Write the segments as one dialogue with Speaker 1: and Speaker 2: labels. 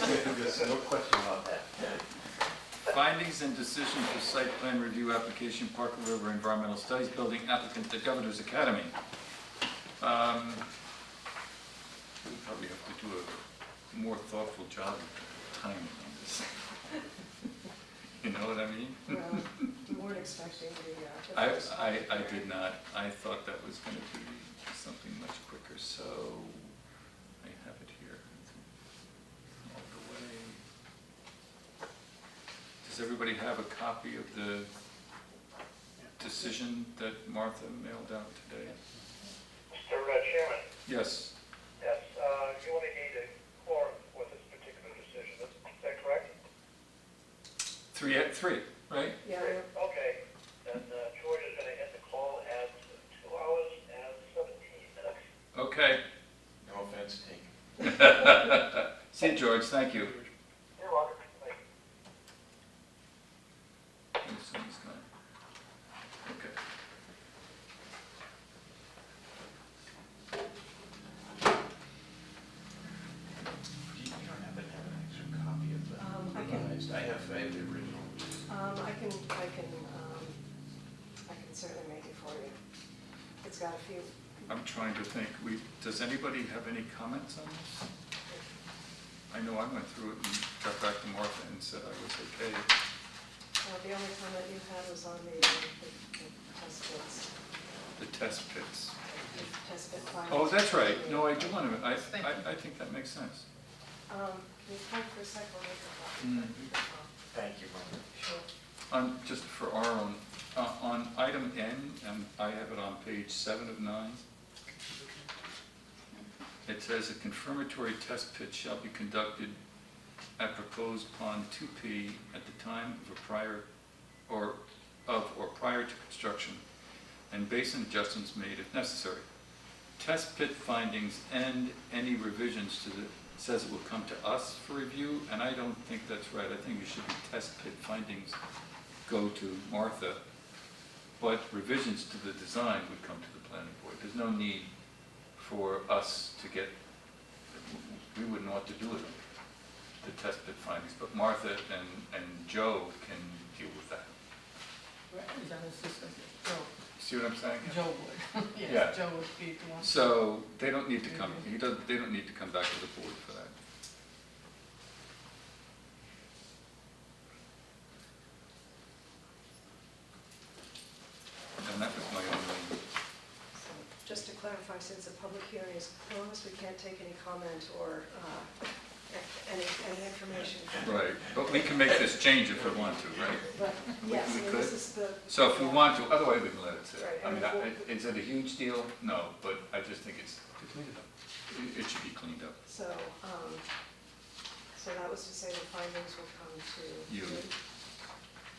Speaker 1: There's no question about that.
Speaker 2: Findings and decision for site plan review application, Parker River Environmental Studies Building applicant, the Governor's Academy. Um, We probably have to do a more thoughtful job of timing on this. You know what I mean?
Speaker 3: Well, you weren't expecting the,
Speaker 2: I,
Speaker 3: uh, the first.
Speaker 2: I, I did not, I thought that was gonna be something much quicker, so I have it here. All the way. Does everybody have a copy of the decision that Martha mailed out today?
Speaker 4: Mr. uh, Chairman,
Speaker 2: Yes,
Speaker 4: yes, uh, you only need a quorum for this particular decision, is is that correct?
Speaker 2: three, three, right?
Speaker 3: Yeah,
Speaker 4: Mm-hmm.
Speaker 3: yeah.
Speaker 4: Okay, then uh, George is going to end the call at two hours and 17 minutes.
Speaker 2: Okay.
Speaker 1: No offense taken.
Speaker 2: See you, George, thank you.
Speaker 4: You're welcome. Thank you.
Speaker 2: Thanks, someone's gone. Okay.
Speaker 1: Do you you don't happen to have an extra copy of the
Speaker 3: Um, I can-
Speaker 1: revised? I have, I have the original.
Speaker 3: Um, I can, I can, um, I can certainly make it for you. It's got a few,
Speaker 2: I'm trying to think, we, does anybody have any comments on this? I know I went through it and got back to Martha and said I was okay.
Speaker 3: uh, the only comment you had was on the, uh, the the test bits,
Speaker 2: The test pits.
Speaker 3: the test bit findings.
Speaker 2: Oh, that's right, no, I do want to, I, I, I think that makes sense.
Speaker 3: Um, can you hold for a sec, I'll make
Speaker 2: Mm.
Speaker 3: a copy.
Speaker 1: Thank you, Mark.
Speaker 3: Sure.
Speaker 2: On, just for our own, uh, on item N, and I have it on page seven of nine. It says a confirmatory test pit shall be conducted at proposed pond two P at the time of a prior, or, of, or prior to construction, and basin adjustments made if necessary. Test pit findings and any revisions to the, says it will come to us for review, and I don't think that's right. I think it should be test pit findings go to Martha, but revisions to the design would come to the planning board. There's no need for us to get, we wouldn't want to do it, the test pit findings, but Martha and, and Joe can deal with that.
Speaker 5: Right, he's on his system. Joe,
Speaker 2: See what I'm saying?
Speaker 5: Joe would. Yes,
Speaker 2: Yeah.
Speaker 5: Joe would be the one.
Speaker 2: So they don't need to come, he doesn't, they don't need to come back to the board for that. And that was my only,
Speaker 3: So, Just to clarify, since the public hearing is closed, we can't take any comment or uh, any, any information.
Speaker 2: right, but we can make this change if we want to, right?
Speaker 3: But, yes, I mean, this is the.
Speaker 2: So if we want to, otherwise we can let it sit.
Speaker 3: Right,
Speaker 2: I mean,
Speaker 3: and
Speaker 2: I-
Speaker 3: we'll-
Speaker 2: is it a huge deal? No, but I just think it's, it- it should be cleaned up.
Speaker 3: So, um, so that was to say the findings will come to.
Speaker 2: You.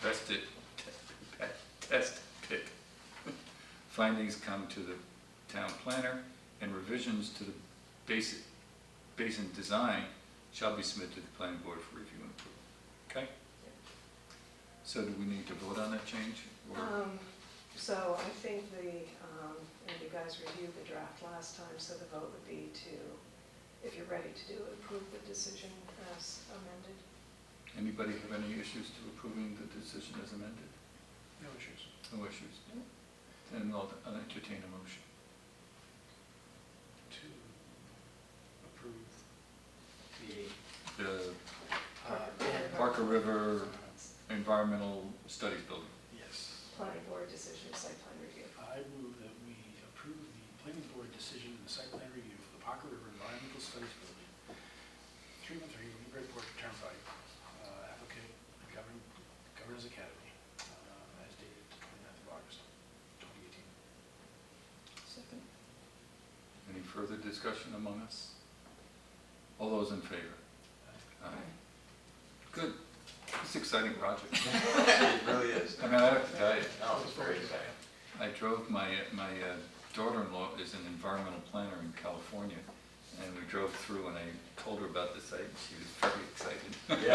Speaker 2: Test it, test pit. Findings come to the town planner, and revisions to the basic, basin design shall be submitted to the planning board for review and approval, okay? So do we need to vote on that change? or-
Speaker 3: Um, So I think the, um, and you guys reviewed the draft last time, so the vote would be to, if you're ready to do it, approve the decision as amended.
Speaker 2: Anybody have any issues to approving the decision as amended?
Speaker 1: No issues.
Speaker 2: No issues? Then I'll I'll entertain a motion.
Speaker 1: To approve the
Speaker 2: The
Speaker 1: uh,
Speaker 2: Parker River Environmental Studies Building.
Speaker 6: Yes.
Speaker 3: Planning board decision, site plan review.
Speaker 6: I move that we approve the planning board decision and the site plan review for the Parker River Environmental Studies Building, oh 313 Newburyport Turnpike, uh, applicant, the Govern- Governors Academy, uh, as dated the 29th of August, 2018.
Speaker 5: Second.
Speaker 2: Any further discussion among us? All those in favor? Aye. Good. It's an exciting project.
Speaker 1: It really is.
Speaker 2: I mean, I have to tell you,
Speaker 1: No, it's very exciting.
Speaker 2: I drove, my, my uh, daughter-in-law is an environmental planner in California, and we drove through and I told her about the site, and she was very excited.